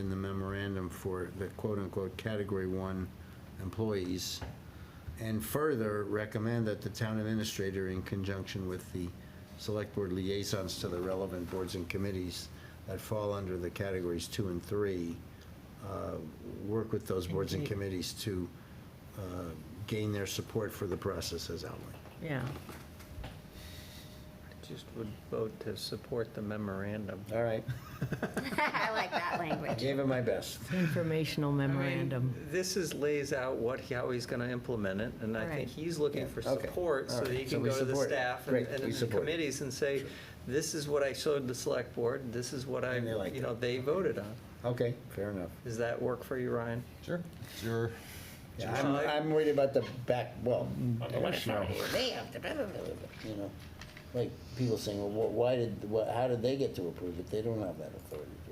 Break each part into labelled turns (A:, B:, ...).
A: in the memorandum for the quote-unquote Category 1 employees, and further recommend that the town administrator, in conjunction with the select board liaisons to the relevant boards and committees that fall under the categories 2 and 3, uh, work with those boards and committees to uh, gain their support for the process as outlined.
B: Yeah,
C: Just would vote to support the memorandum.
A: All right,
D: I like that
A: I
D: language.
A: gave it my best.
B: informational
C: I mean,
B: memorandum.
C: This is lays out what, how he's going to implement it, and I
B: Right.
C: think he's looking for
A: Yeah, okay.
C: support so
A: All
C: that he
A: right. So
C: can
A: we
C: go to the
A: support it.
C: staff and
A: Great,
C: and
A: we
C: the
A: support it.
C: committees and say, this is what I showed the select board, this is what I,
A: And they liked
C: you know,
A: it.
C: they voted on.
A: Okay, fair enough.
C: Does that work for you, Ryan?
E: Sure. Sure.
A: Yeah, I'm, I'm worried about the back, well,
F: the left
A: you know,
F: side.
A: they have to, blah, blah, blah, blah, you know, like, people saying, well, wh- why did, wh- how did they get to approve it? They don't have that authority to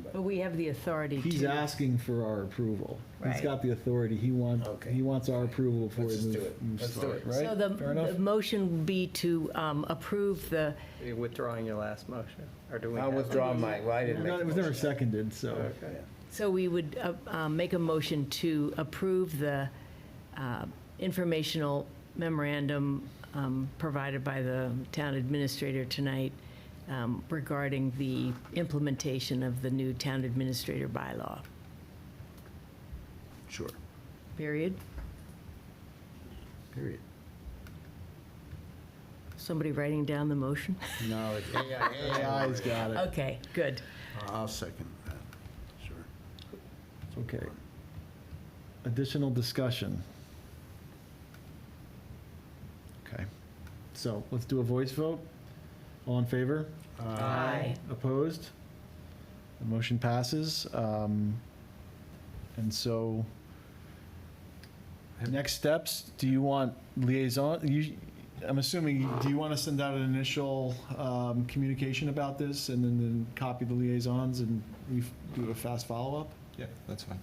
B: But
A: approve it.
B: we have the authority to.
E: He's asking for our approval. He's
B: Right.
E: got the authority. He wants,
A: Okay.
E: he wants our approval before
A: Let's
E: he
A: just do it.
E: moves
A: Let's do
E: forward,
A: it.
E: right?
B: So the,
E: Fair
B: the
E: enough?
B: motion would be to um, approve the,
C: Are you withdrawing your last motion, or do we
A: I'll
C: have-
A: withdraw my, well, I didn't make
E: No,
A: the
E: It was never
A: motion.
E: seconded, so.
C: Okay.
B: so we would uh, uh, make a motion to approve the uh, informational memorandum um, provided by the town administrator tonight um, regarding the implementation of the new town administrator bylaw,
A: Sure,
B: period.
A: period.
B: Somebody writing down the motion?
A: No, it's AI,
E: AI's got it.
B: Okay, good.
A: I'll second that, sure.
E: Okay. Additional discussion. Okay. So let's do a voice vote. All in favor?
B: Aye.
E: Opposed? The motion passes. Um, And so, next steps, do you want liaison, you, I'm assuming, do you want to send out an initial um, communication about this and then- then copy the liaisons and we f- do a fast follow-up?
G: Yeah, that's fine.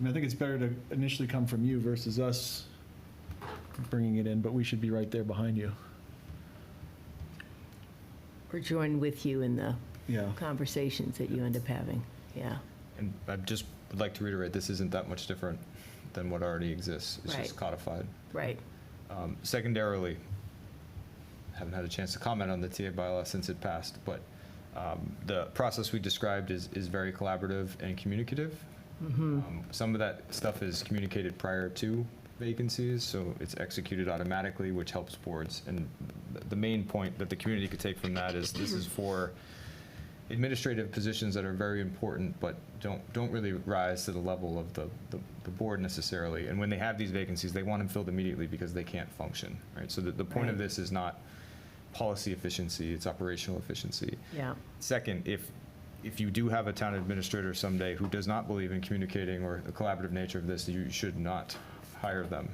E: I mean, I think it's better to initially come from you versus us bringing it in, but we should be right there behind you.
B: We're joined with you in the
E: Yeah.
B: conversations that you end up having, yeah.
G: And I just would like to reiterate, this isn't that much different than what already exists. It's just
B: Right.
G: codified.
B: Right.
G: Um, Secondarily, haven't had a chance to comment on the TA bylaw since it passed, but um, the process we described is, is very collaborative and communicative. Um, Some of that stuff is communicated prior to vacancies, so it's executed automatically, which helps boards. And th- the main point that the community could take from that is this is for administrative positions that are very important, but don't, don't really rise to the level of the, the- the board necessarily. And when they have these vacancies, they want them filled immediately because they can't function, right? So the, the point of
B: Right.
G: this is not policy efficiency, it's operational efficiency.
B: Yeah,
G: Second, if, if you do have a town administrator someday who does not believe in communicating or the collaborative nature of this, you should not hire them.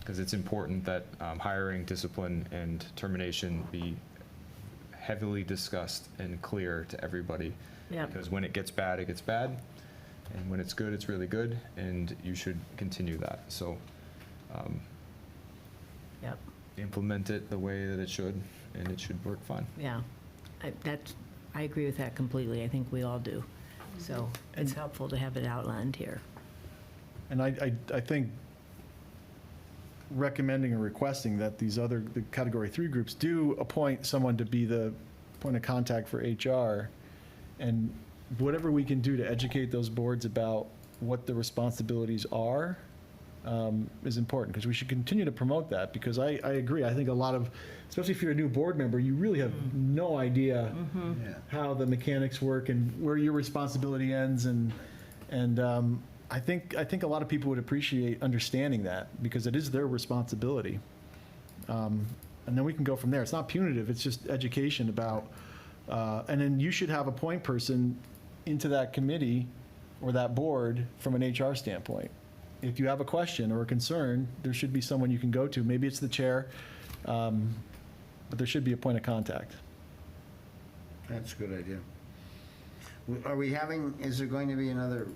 G: Because it's important that um, hiring, discipline, and termination be heavily discussed and clear to everybody.
B: Yep.
G: Because when it gets bad, it gets bad, and when it's good, it's really good, and you should continue that. So um,
B: yep,
G: implement it the way that it should, and it should work fine.
B: yeah. I- That's, I agree with that completely, I think we all do. So it's helpful to have it outlined here.
E: And I, I, I think recommending or requesting that these other, the category three groups do appoint someone to be the point of contact for HR. And whatever we can do to educate those boards about what the responsibilities are um, is important, because we should continue to promote that, because I, I agree. I think a lot of, especially if you're a new board member, you really have no idea
A: Yeah.
E: how the mechanics work and where your responsibility ends and and um, I think I think a lot of people would appreciate understanding that because it is their responsibility. Um, and then we can go from there. It's not punitive. It's just education about. Uh, and then you should have a point person into that committee or that board from an HR standpoint. If you have a question or a concern, there should be someone you can go to. Maybe it's the chair, um, but there should be a point of contact.
A: That's a good idea. W- Are we having, is there going to be another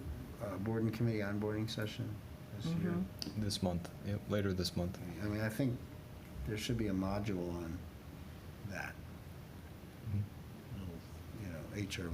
A: uh, board and committee onboarding session this year?
E: Mm-hmm.
G: This month, yep, later this month.
A: I mean, I think there should be a Mm-hmm. module on that. You know, HR